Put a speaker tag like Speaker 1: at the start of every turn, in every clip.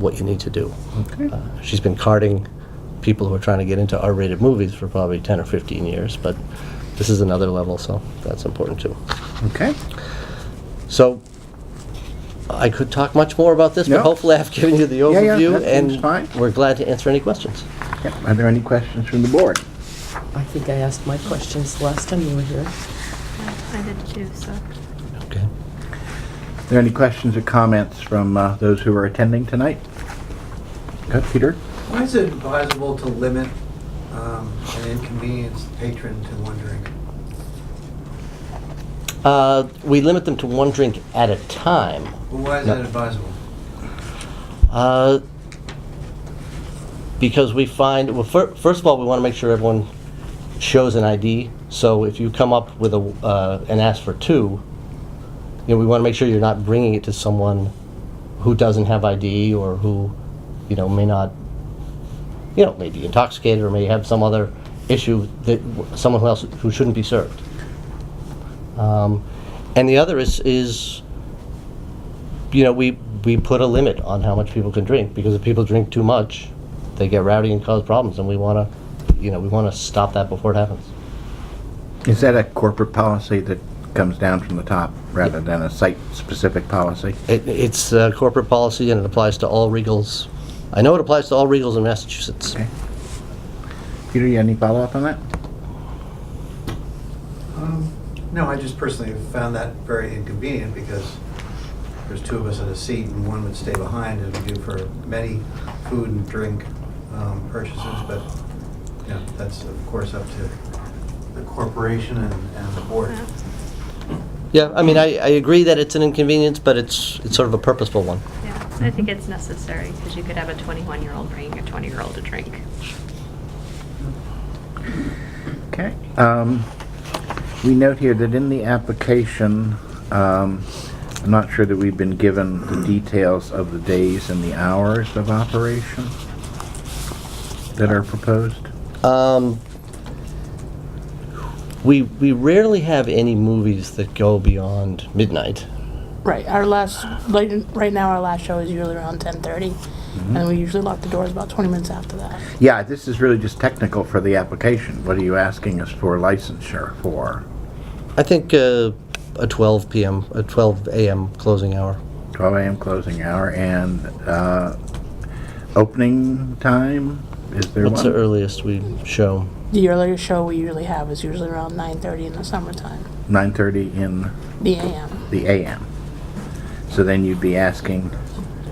Speaker 1: what you need to do. Uh, She's been carding people who are trying to get into R-rated movies for probably 10 or 15 years, but this is another level, so that's important too.
Speaker 2: Okay.
Speaker 1: So I could talk much more about this, but
Speaker 2: No.
Speaker 1: hopefully I've given you the
Speaker 2: Yeah, yeah,
Speaker 1: overview,
Speaker 2: that seems fine.
Speaker 1: and we're glad to answer any questions.
Speaker 2: Yep. Are there any questions from the board?
Speaker 3: I think I asked my questions the last time you were here.
Speaker 4: I did too, so.
Speaker 1: Okay.
Speaker 2: Are there any questions or comments from uh, those who are attending tonight? Good, Peter?
Speaker 5: Why is it advisable to limit um, an inconvenience patron to one drink?
Speaker 1: Uh, We limit them to one drink at a time.
Speaker 5: Well, Why is
Speaker 1: No.
Speaker 5: that advisable?
Speaker 1: Uh, Because we find, well, fir- first of all, we want to make sure everyone shows an ID. So if you come up with a, uh, and ask for two, you know, we want to make sure you're not bringing it to someone who doesn't have ID or who, you know, may not, you know, may be intoxicated or may have some other issue that, someone who else who shouldn't be served. Um, And the other is, is you know, we, we put a limit on how much people can drink, because if people drink too much, they get rowdy and cause problems, and we wanna, you know, we wanna stop that before it happens.
Speaker 2: Is that a corporate policy that comes down from the top rather than a site-specific policy?
Speaker 1: It, it's uh, corporate policy, and it applies to all Regals. I know it applies to all Regals in Massachusetts.
Speaker 2: Okay. Peter, you have any follow-up on that?
Speaker 5: Um, No, I just personally have found that very inconvenient because there's two of us in a seat and one would stay behind as we do for many food and drink um, purchases, but, you know, that's of course up to the corporation and and the board.
Speaker 1: Yeah, I mean, I, I agree that it's an inconvenience, but it's, it's sort of a purposeful one.
Speaker 4: Yeah, I think it's necessary because you could have a 21-year-old bringing a 20-year-old a drink.
Speaker 2: Okay. Um, We note here that in the application, um, I'm not sure that we've been given the details of the days and the hours of operation that are proposed.
Speaker 1: Um, we, we rarely have any movies that go beyond midnight.
Speaker 6: Right, our last, like, right now, our last show is usually around ten thirty, and we usually lock the doors about twenty minutes after that.
Speaker 2: Yeah, this is really just technical for the application. What are you asking us for licensure for?
Speaker 1: I think, uh, a twelve PM, a twelve AM closing hour.
Speaker 2: 12 a.m. closing hour and uh, opening time? Is there
Speaker 1: What's the
Speaker 2: one?
Speaker 1: earliest we show?
Speaker 6: The earlier show we usually have is usually around nine thirty in the summertime,
Speaker 2: 9:30 in
Speaker 6: the AM.
Speaker 2: the a.m. So then you'd be asking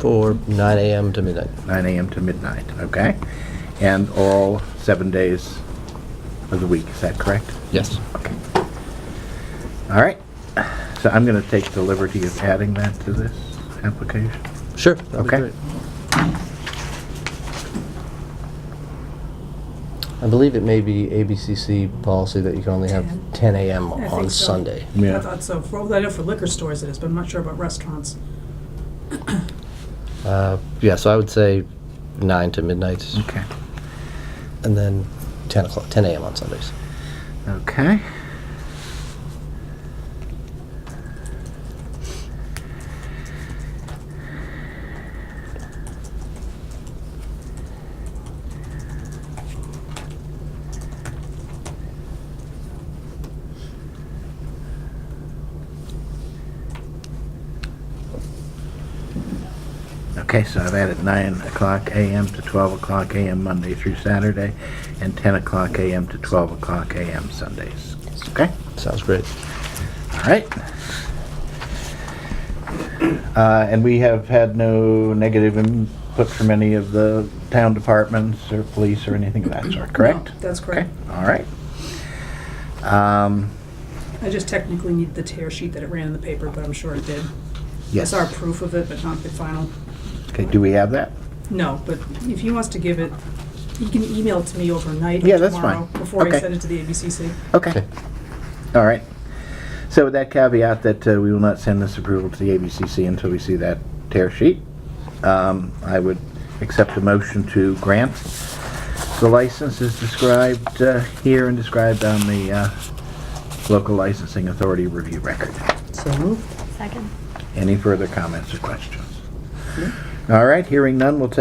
Speaker 1: For 9 AM to midnight.
Speaker 2: 9 a.m. to midnight, okay? And all seven days of the week, is that correct?
Speaker 1: Yes.
Speaker 2: Okay. All right. So I'm going to take the liberty of adding that to this application.
Speaker 1: Sure. that'd be
Speaker 2: Okay.
Speaker 1: great. I believe it may be ABCC policy that you can only have 10 AM
Speaker 7: I
Speaker 1: on
Speaker 7: think so.
Speaker 1: Sunday.
Speaker 2: Yeah.
Speaker 7: I thought so. For, well, I know for liquor stores it is, but I'm not sure about restaurants.
Speaker 1: Uh, Yeah, so I would say 9 to midnight
Speaker 2: Okay.
Speaker 1: and then 10 o'clock, 10 AM on Sundays.
Speaker 2: Okay. Okay, so I've added 9 o'clock a.m. to 12 o'clock a.m. Monday through Saturday, and 10 o'clock a.m. to 12 o'clock a.m. Sundays. Okay?
Speaker 1: Sounds great.
Speaker 2: All right. Uh, And we have had no negative input from any of the town departments or police or anything of that sort, correct?
Speaker 7: that's correct.
Speaker 2: Okay, All right. Um,
Speaker 7: I just technically need the tear sheet that it ran in the paper, but I'm sure it did.
Speaker 2: Yes.
Speaker 7: I saw proof of it, but not the final.
Speaker 2: Okay, do we have that?
Speaker 7: No, but if he wants to give it, he can email it to me overnight or
Speaker 2: Yeah, that's
Speaker 7: tomorrow
Speaker 2: fine.
Speaker 7: before I
Speaker 2: Okay.
Speaker 7: send it to the ABCC.
Speaker 2: Okay. All right. So with that caveat that uh, we will not send this approval to the ABCC until we see that tear sheet, um, I would accept a motion to grant the license as described uh, here and described on the uh, local licensing authority review record.
Speaker 3: So moved.
Speaker 4: Second?
Speaker 2: Any further comments or questions? All right, hearing none, we'll take